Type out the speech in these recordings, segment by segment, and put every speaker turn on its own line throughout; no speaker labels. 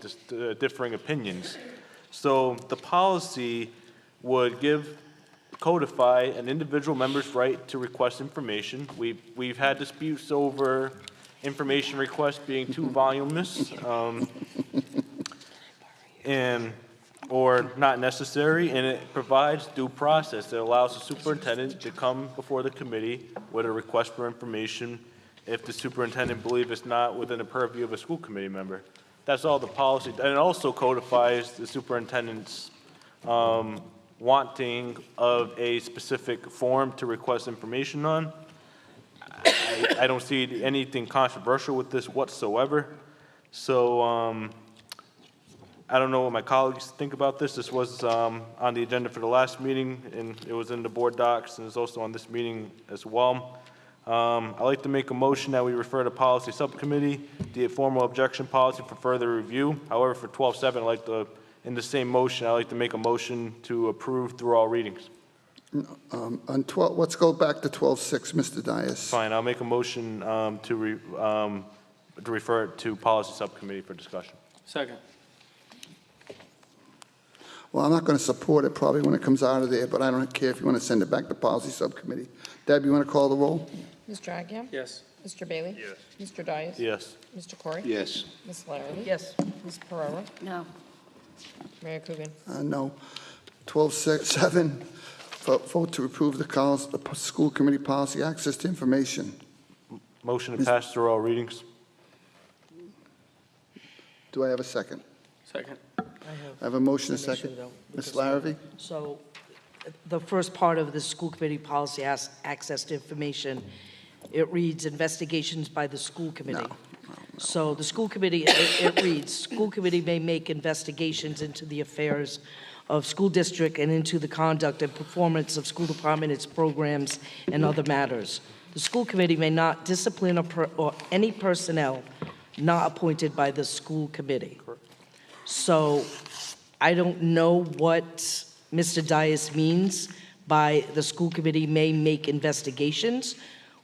dis- uh, differing opinions. So the policy would give, codify an individual member's right to request information. We've, we've had disputes over information requests being too voluminous, um, and, or not necessary, and it provides due process that allows the superintendent to come before the committee with a request for information if the superintendent believes it's not within the purview of a school committee member. That's all the policy, and it also codifies the superintendent's um, wanting of a specific form to request information on. I- I don't see anything controversial with this whatsoever. So um, I don't know what my colleagues think about this. This was um, on the agenda for the last meeting, and it was in the board docs, and it's also on this meeting as well. Um, I'd like to make a motion that we refer to policy subcommittee, the formal objection policy for further review. However, for 12-7, I'd like to, in the same motion, I'd like to make a motion to approve through all readings.
Um, On 12, let's go back to 12.6, Mr. Dias.
Fine, I'll make a motion um, to re- um, to refer it to policy subcommittee for discussion.
Second.
Well, I'm not going to support it probably when it comes out of there, but I don't care if you want to send it back to Policy Subcommittee. Deb, you want to call the roll?
Ms. Dragia?
Yes.
Mr. Bailey? Yes. Mr. Dias?
Yes.
Mr. Corey?
Yes.
Ms. Larrabee?
Yes.
Ms. Pereira?
No.
Mayor Coogan?
Uh, No. 12.6, 7, vo- vote to approve the col- the p- school committee policy access to information.
Motion to pass through all readings.
Do I have a second?
Second.
I have a motion, a
An issue,
second.
though,
Ms.
because- uh,
Larrabee?
So the first part of the school committee policy has access to information. It reads investigations by the school
Oh,
committee. So the school committee, it it reads, school committee may make investigations into the affairs of school district and into the conduct and performance of school department, its programs, and other matters. The school committee may not discipline or per- or any personnel not appointed by the school committee. So I don't know what Mr. Dias means by the school committee may make investigations.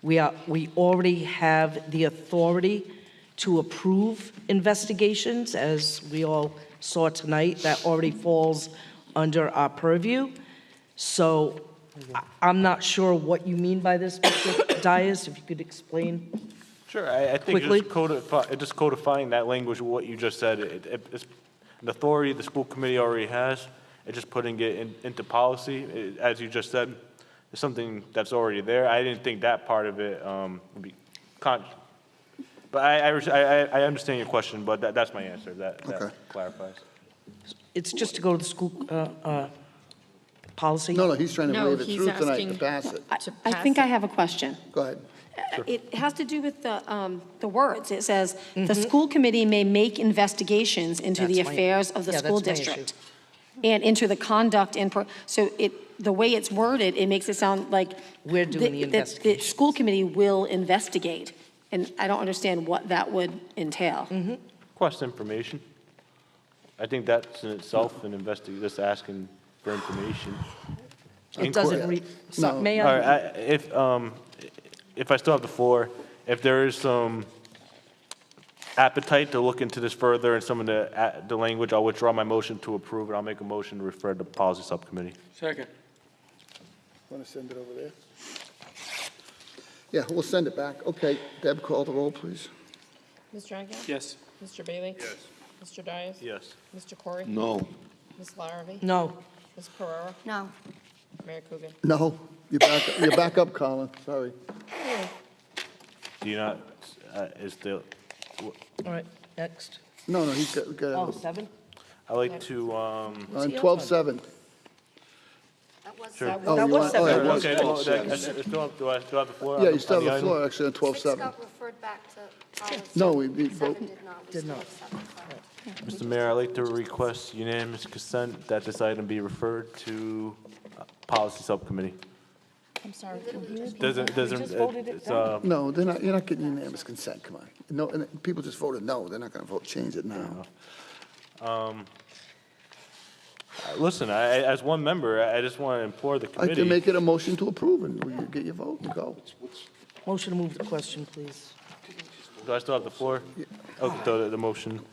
We are, we already have the authority to approve investigations, as we all saw tonight. That already falls under our purview. So I- I'm not sure what you mean by this, Mr. Dias, if you could explain.
Sure, I, I think
Quickly.
just codifying, just codifying that language, what you just said, it, it- it's an authority the school committee already has, it's just putting it in, into policy, It- as you just said, it's something that's already there. I didn't think that part of it, um, would be con, but I, I, res- I, I- I understand your question, but that, that's my answer, that, that
Okay.
clarifies.
It's just to go to the school, uh, uh, policy?
No, no, he's trying to
No,
wave it
he's
through tonight to
asking-
pass it.
I-
to
I
pass
think
it.
I have a question.
Go ahead.
It has to do with the, um, the words. It says, "The school committee may make investigations into the
Mm-hmm. That's my-
affairs of the
yeah,
school
that's my issue.
district and into the conduct and, pro-" so it, the way it's worded, it makes it sound like.
We're doing the
that- that The
investigations.
school committee will investigate, and I don't understand what that would entail.
Mm-hmm.
Request information. I think that's in itself an investi, just asking for information.
It doesn't
Yeah.
read, so,
No.
may
All
I?
right, I- if, um, if I still have the floor, if there is some appetite to look into this further and some of the, uh, the language, I'll withdraw my motion to approve, and I'll make a motion to refer to policy subcommittee.
Second.
Want to send it over there? Yeah, we'll send it back. Okay, Deb, call the roll, please.
Ms. Dragia?
Yes.
Mr. Bailey? Yes. Mr. Dias?
Yes.
Mr. Corey?
No.
Ms. Larrabee?
No,
Ms. Pereira?
No.
Mayor Coogan?
No, you're back, you're back up, Colin, sorry.
Do you not, uh, is the,
all right, next.
No, no, he's got, got
Oh,
on
seven?
I like to, um,
12.7.
sure.
Oh,
That
you
was
want- oh,
seven.
yeah,
Okay, well, that- I still have, do I still have the floor? on
Yeah,
the-
you still have
on
the
item?
floor, actually, on
Six
12.7.
got referred back to policy.
No, we- we vote-
Seven did not. We
Did
still
not.
have seven, sorry.
Mr. Mayor, I'd like to request unanimous consent that this item be referred to uh, policy subcommittee.
I'm sorry.
Doesn't, doesn't, it's, uh,
No, they're not, you're not getting unanimous consent, come on. No, and people just voted no, they're not going to vote, change it now.
Listen, I, I- as one member, I I just want to implore the
I can
committee.
make it a motion to approve, and we get your vote and go.
Motion to move the question, please.
Do I still have the floor? Okay, so the, the motion.